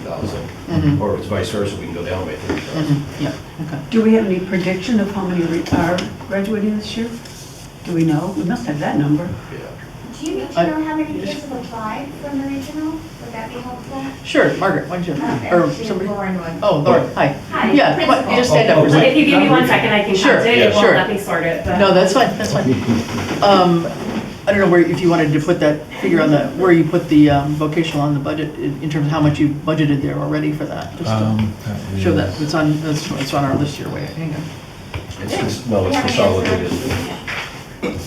Mhm. thousand, or if it's vice versa, we can go down by thirty thousand. Mhm, Yeah, okay. Do we have any prediction of how many re- are graduating this year? Do we know? We must have that number. Mm-hmm. Yeah. Do you need I- to know how many kids have applied from the regional? Would that be helpful? Sure, Margaret, why don't you, or somebody? Lauren would. Oh, Lauren, hi. Hi, Yeah, principal. what- just stand up for a Oh, oh, second. If you give me one second, I can Sure, count it, yeah, it won't sure. let me sort it, but. No, that's fine, that's fine. Um, I don't know where, if you wanted to put that figure on the, where you put the um, vocational on the budget, in in terms of how much you budgeted there already for that. just to Um, Show that, it's on, it's it's on our list here, wait, hang on. It's, cons- no, We it's have an answer. consolidated.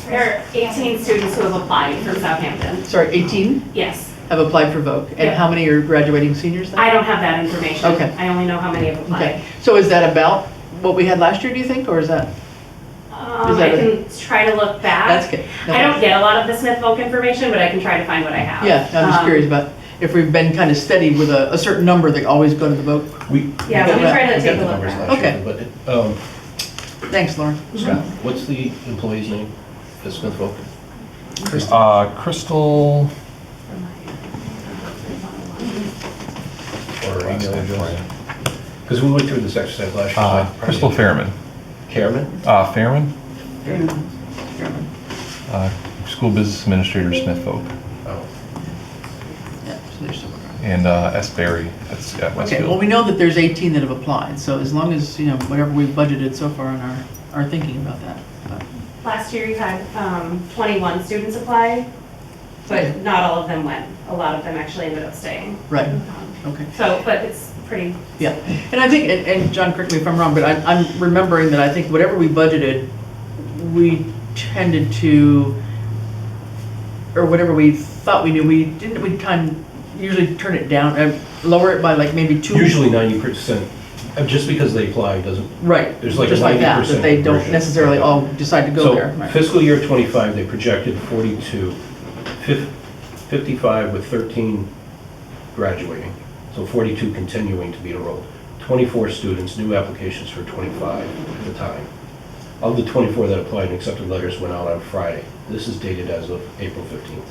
There are 18 students who have applied from Southampton. Sorry, 18 Yes. have applied for voc, and Yeah. how many are graduating seniors then? I don't have that information. Okay. I only know how many have applied. Okay, so is that about what we had last year, do you think, or is that? Is Um, I that a- can try to look back. That's good. No, I don't get a lot of the Smith Volk information, but I can try to find what I have. Yeah, I'm just Um, curious about if we've been kind of steady with a, a certain number that always go to the vote. We. we Yeah, got we try that- to we got take a the look numbers at last year, Okay. But, it- um, Thanks, Lauren. Scott, what's the employee's name at Smith Volk? Uh, Crystal. Or email address? Because we went through this exercise last year. so I Uh, probably Crystal didn't- Fairman. Cameron? Uh, Fairman, Chairman. uh, school business administrator, Smith Oak, Oh. Yeah, so there's someone. and uh, S. Berry at, at Okay, well, we Westfield. know that there's 18 that have applied, so as long as, you know, whatever we've budgeted so far in our, our thinking about that. Uh, but- Last year you had um, 21 students apply, but not all of them went. A lot of them actually ended up staying. Right, Um, okay. So, but it's pretty Yeah, and I think, and, and John, correct me if I'm wrong, but I'm, I'm remembering that I think whatever we budgeted, we tended to, or whatever we thought we knew, we didn't, we time, usually turn it down, uh, lower it by like maybe two. Usually ninety percent, uh, just because they apply doesn't. Right, there's like just like that, 90% that they don't conversion. necessarily all decide to go there. So right. fiscal year twenty-five, they projected 42, fif- 55 with thirteen graduating, so forty-two continuing to be enrolled. Twenty-four students, new applications for twenty-five at the time. Of the twenty-four that applied and accepted letters went out on Friday. This is dated as of April fifteenth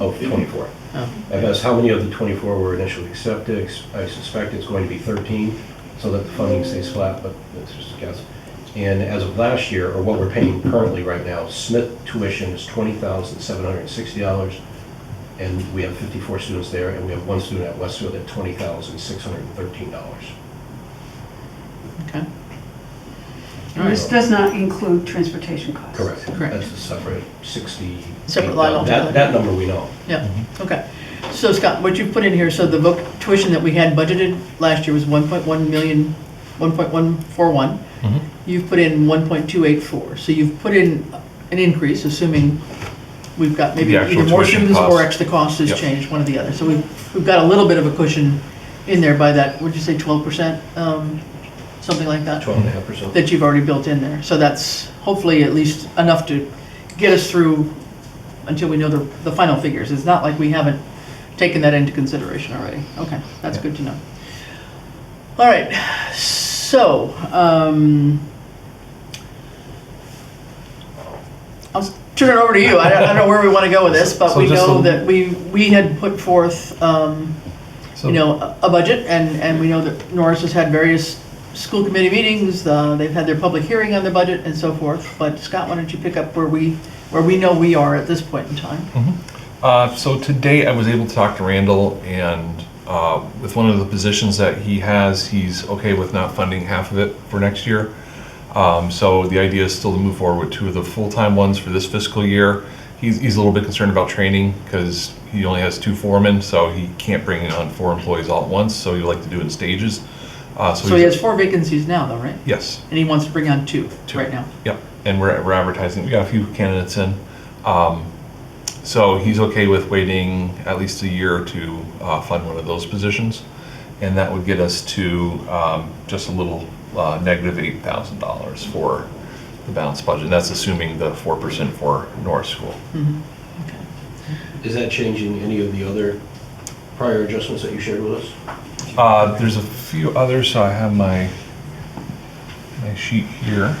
of twenty-four. Oh. I've asked how many of the 24 were initially accepted. I suspect it's going to be 13, so that the funding stays flat, but that's just a guess. And as of last year, or what we're paying currently right now, Smith tuition is $20,760, and we have 54 students there, and we have one student at Westfield at $20,613. Okay. All This right, does not include transportation costs. Correct. Correct. That's a separate 60. Separate line altogether. That, that number we know. yeah, Mhm. okay. So Scott, what you've put in here, so the voc tuition that we had budgeted last year was 1.1 million, 1.141. Mhm. You've put in 1.284, so you've put in an increase, assuming we've got maybe The actual either more tuition students or cost. extra cost has Yep. changed, one or the other. So we've, we've got a little bit of a cushion in there by that, would you say 12%, um, something like that? 12.5%. that you've already built in there. So that's hopefully at least enough to get us through until we know the, the final figures. It's not like we haven't taken that into consideration already. Okay, that's good to know. All right, so, um, I'll turn it over to you. I don't, I don't know where we want to go with this, but So we just know a- that we, we had put forth, um, So- you know, a- a budget, and, and we know that Norris has had various school committee meetings, uh, they've had their public hearing on their budget and so forth, but Scott, why don't you pick up where we, where we know we are at this point in time? Uh, so today I was able to talk to Randall and uh, with one of the positions that he has, he's okay with not funding half of it for next year. Um, so the idea is still to move forward with two of the full-time ones for this fiscal year. He's, he's a little bit concerned about training because he only has two foremen, so he can't bring in on four employees all at once, so he'd like to do it in stages. Uh, So he he's- has four vacancies now, though, right? Yes. And he wants to bring on two Two. right now. Yep, and we're, we're advertising, we got a few candidates in. Um, So he's okay with waiting at least a year to uh, fund one of those positions. And that would get us to um, just a little uh, negative $8,000 for the balanced budget. And that's assuming the 4% for Norris School. Is that changing any of the other prior adjustments that you shared with us? Uh, There's a few others, so I have my, my sheet here.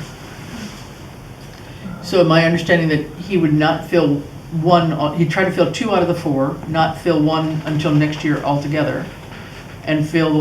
So my understanding that he would not fill uh, one, he'd try to fill two out of the four, not fill one until next year altogether. and fill